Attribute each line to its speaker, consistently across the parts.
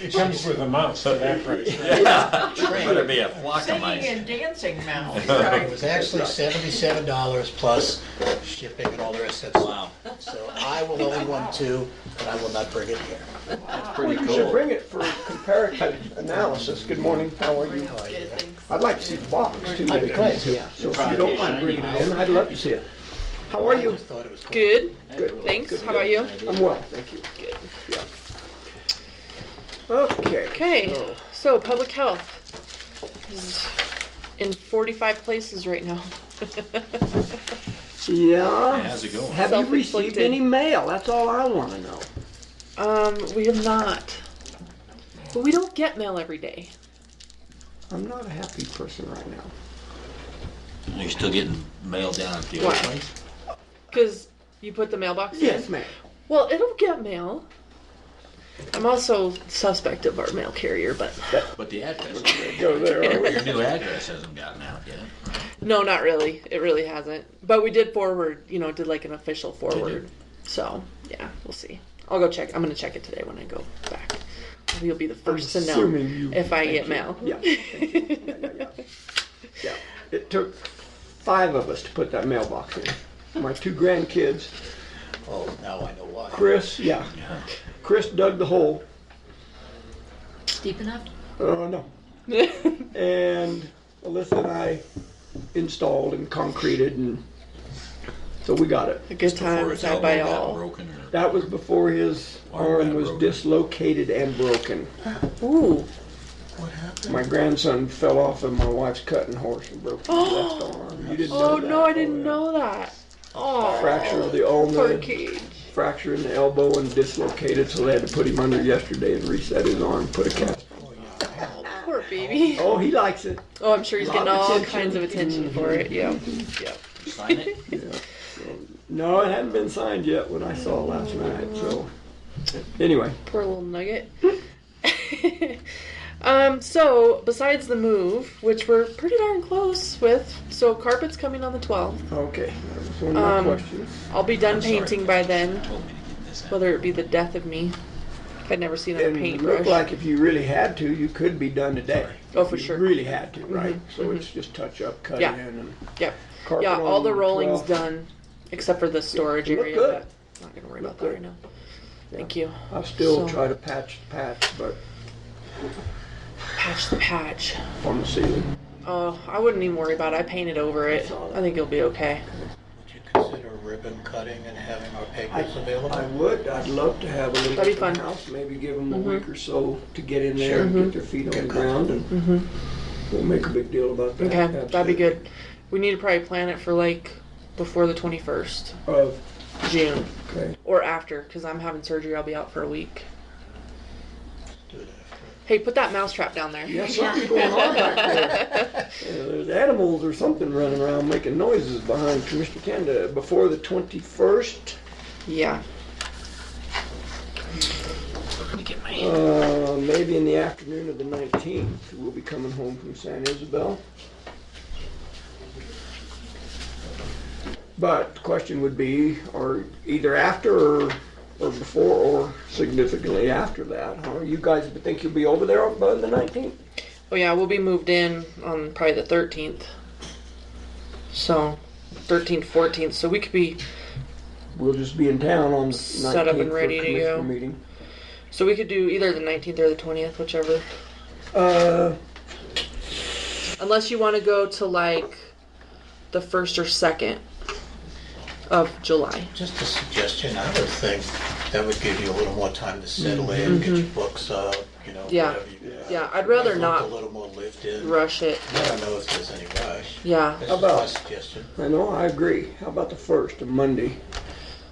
Speaker 1: It comes with a mouse at that price.
Speaker 2: Yeah,
Speaker 3: Train.
Speaker 2: better be a flock of
Speaker 4: Singing
Speaker 2: mice.
Speaker 4: and dancing now.
Speaker 3: It was actually seventy-seven dollars plus shipping and all the rest of that
Speaker 2: Wow,
Speaker 3: stuff. So I will own one too, but I will not bring it here.
Speaker 4: Wow.
Speaker 5: Well, you should bring it for comparative analysis. Good morning, how are you?
Speaker 4: Good things.
Speaker 5: I'd like to see the box too.
Speaker 3: I'd be glad to, yeah.
Speaker 5: So if you don't mind bringing it in, I'd love to see it. How are
Speaker 3: I
Speaker 5: you?
Speaker 3: thought it was cool.
Speaker 6: Good.
Speaker 5: Good.
Speaker 6: Thanks. How about you?
Speaker 5: I'm well, thank you.
Speaker 6: Good.
Speaker 5: Yeah. Okay.
Speaker 6: Okay.
Speaker 5: so-
Speaker 6: So public health is in 45 places right now.
Speaker 5: Yeah.
Speaker 2: how's it going?
Speaker 5: Have you received
Speaker 6: Self-inflicted.
Speaker 5: any mail? That's all I want to know.
Speaker 6: um, we have not. But we don't get mail every day.
Speaker 5: I'm not a happy person right now.
Speaker 2: You're still getting mail down at the old
Speaker 6: Why?
Speaker 2: place?
Speaker 6: Because you put the mailbox
Speaker 5: Yes,
Speaker 6: in?
Speaker 5: ma'am.
Speaker 6: Well, it'll get mail. I'm also suspect of our mail carrier, but
Speaker 2: But the address,
Speaker 5: Go there.
Speaker 2: your new address hasn't gotten out yet.
Speaker 6: no, not really. It really hasn't. But we did forward, you know, did like an official
Speaker 2: you?
Speaker 6: forward. So, yeah, we'll see. I'll go check. I'm going to check it today when I go back. You'll be the 1st to know
Speaker 5: assuming you-
Speaker 6: if I
Speaker 5: thank
Speaker 6: get
Speaker 5: you.
Speaker 6: mail.
Speaker 5: Yeah, thank you. Yeah, yeah, yeah. Yeah. It took five of us to put that mailbox in. My two grandkids,
Speaker 3: Oh, now I know why.
Speaker 5: Chris, yeah. Chris dug the hole.
Speaker 4: Deep enough?
Speaker 5: Oh, no. and Alyssa and I installed and concreted, and so we got it.
Speaker 6: A good
Speaker 2: Before
Speaker 6: time
Speaker 2: his
Speaker 6: had
Speaker 2: elbow
Speaker 6: by
Speaker 2: got
Speaker 6: all.
Speaker 2: Broken or,
Speaker 5: That was before his
Speaker 2: Arm
Speaker 5: arm
Speaker 2: got
Speaker 5: was
Speaker 2: broken.
Speaker 5: dislocated and broken.
Speaker 6: Ooh,
Speaker 5: My grandson fell off of my wife's cutting horse and broke his left arm. You didn't know
Speaker 6: oh
Speaker 5: that.
Speaker 6: no, I
Speaker 5: Oh,
Speaker 6: didn't
Speaker 5: yeah.
Speaker 6: know that. Oh,
Speaker 5: Fracture of the
Speaker 6: poor
Speaker 5: ulna,
Speaker 6: cage.
Speaker 5: fracture in the elbow, and dislocated, so they had to put him under yesterday and reset his arm, put a cast.
Speaker 6: Poor baby.
Speaker 5: Oh, he likes it.
Speaker 6: Oh, I'm sure he's
Speaker 5: Lot of
Speaker 6: getting all
Speaker 5: attention.
Speaker 6: kinds of attention for it. Yeah. yeah.
Speaker 2: sign it?
Speaker 5: No, it hadn't been signed yet when I saw it last night. So, anyway,
Speaker 6: Poor little nugget. um, so, besides the move, which we're pretty darn close with, so carpet's coming on the 12th.
Speaker 5: okay, that was one of my
Speaker 6: Um,
Speaker 5: questions.
Speaker 6: I'll be done
Speaker 2: I'm sorry.
Speaker 6: painting by then,
Speaker 2: Told me to get this out.
Speaker 6: whether it be the death of me. If I'd never seen another
Speaker 5: And it
Speaker 6: paintbrush.
Speaker 5: looked like if you really had to, you could be done today.
Speaker 6: Oh, for
Speaker 5: You
Speaker 6: sure.
Speaker 5: Really had to, right? So
Speaker 6: mhm.
Speaker 5: it's just touch up, cut
Speaker 6: Yeah.
Speaker 5: in, and
Speaker 6: yep.
Speaker 5: carpet
Speaker 6: Yeah, all
Speaker 5: on
Speaker 6: the rolling's
Speaker 5: 12.
Speaker 6: done, except for the storage
Speaker 5: Look
Speaker 6: area.
Speaker 5: good.
Speaker 6: but I'm not gonna worry
Speaker 5: Look
Speaker 6: about that
Speaker 5: good.
Speaker 6: right now.
Speaker 5: Yeah.
Speaker 6: Thank you.
Speaker 5: I'll still
Speaker 6: So-
Speaker 5: try to patch the patch, but
Speaker 6: Patch the patch.
Speaker 5: on the ceiling.
Speaker 6: Oh, I wouldn't even worry about it. I painted over it. I think you'll be okay.
Speaker 3: Would you consider ribbon cutting and having our papers
Speaker 5: I
Speaker 3: available?
Speaker 5: would. I'd love to have a little
Speaker 6: That'd be
Speaker 5: open
Speaker 6: fun. Mm-hmm.
Speaker 5: house. Maybe give them a week or so to get in there and get their feet on the ground, and we'll make a big deal about that.
Speaker 6: Mm-hmm. Okay, that'd
Speaker 5: Absolutely.
Speaker 6: be good. We need to probably plan it for like before the 21st,
Speaker 5: Of-
Speaker 6: June,
Speaker 5: okay.
Speaker 6: or after, because I'm having surgery. I'll be out for a week.
Speaker 3: Do it after.
Speaker 6: Hey, put that mousetrap down there.
Speaker 5: Yeah, something's going on back there. Yeah, there's animals or something running around making noises behind Commissioner Canada before the 21st.
Speaker 6: Yeah.
Speaker 5: Uh, maybe in the afternoon of the 19th, we'll be coming home from San Isabel. But the question would be, or either after or, or before or significantly after that. Huh? You guys think you'll be over there by the 19th?
Speaker 6: Oh yeah, we'll be moved in on probably the 13th. So, 13th, 14th. So we could be
Speaker 5: We'll just be in town on the 19th
Speaker 6: Set up and
Speaker 5: for
Speaker 6: ready to
Speaker 5: commissioner
Speaker 6: go.
Speaker 5: meeting.
Speaker 6: So we could do either the 19th or the 20th, whichever.
Speaker 5: Uh,
Speaker 6: Unless you want to go to like the 1st or 2nd of July.
Speaker 3: Just a suggestion, I would think that would give you a little more time to settle in, get your books up, you know,
Speaker 6: Yeah.
Speaker 3: whatever you got.
Speaker 6: Yeah, I'd rather
Speaker 3: Look A
Speaker 6: not
Speaker 3: little more lived in.
Speaker 6: rush it.
Speaker 3: I don't know if there's any rush.
Speaker 6: Yeah.
Speaker 3: That's
Speaker 5: How
Speaker 3: just my
Speaker 5: about-
Speaker 3: suggestion.
Speaker 5: I know, I agree. How about the first, a Monday?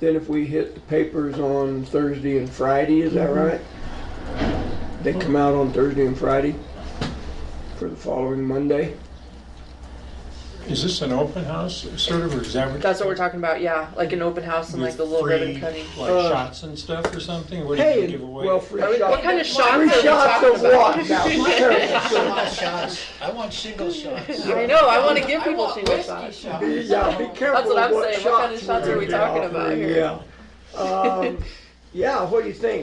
Speaker 5: Then if we hit the papers on Thursday and Friday, is that right? They come out on Thursday and Friday for the following Monday?
Speaker 1: Is this an open house, sort of, or is that what?
Speaker 6: That's what we're talking about. Yeah, like an open house and like the little
Speaker 1: free,
Speaker 6: ribbon cutting.
Speaker 1: Like
Speaker 5: Uh,
Speaker 1: shots and stuff or something? What do you
Speaker 5: Hey,
Speaker 1: give away?
Speaker 5: well, free
Speaker 6: Are we- what
Speaker 5: shots.
Speaker 6: kind of shots are we
Speaker 5: Free shots
Speaker 6: talking
Speaker 5: of
Speaker 6: about?
Speaker 5: what? Now, seriously.
Speaker 3: Single shots. I want single shots.
Speaker 6: I know. I want to give
Speaker 4: I
Speaker 6: people
Speaker 4: want
Speaker 6: single
Speaker 4: whiskey
Speaker 6: shots.
Speaker 4: shots.
Speaker 5: Be- Yeah, be
Speaker 6: That's
Speaker 5: careful
Speaker 6: what I'm
Speaker 5: what
Speaker 6: saying. What kind of
Speaker 5: shots
Speaker 6: shots
Speaker 5: we're
Speaker 6: are we
Speaker 5: gonna
Speaker 6: talking
Speaker 5: offer,
Speaker 6: about here?
Speaker 5: Yeah. Um, Yeah, what do you think?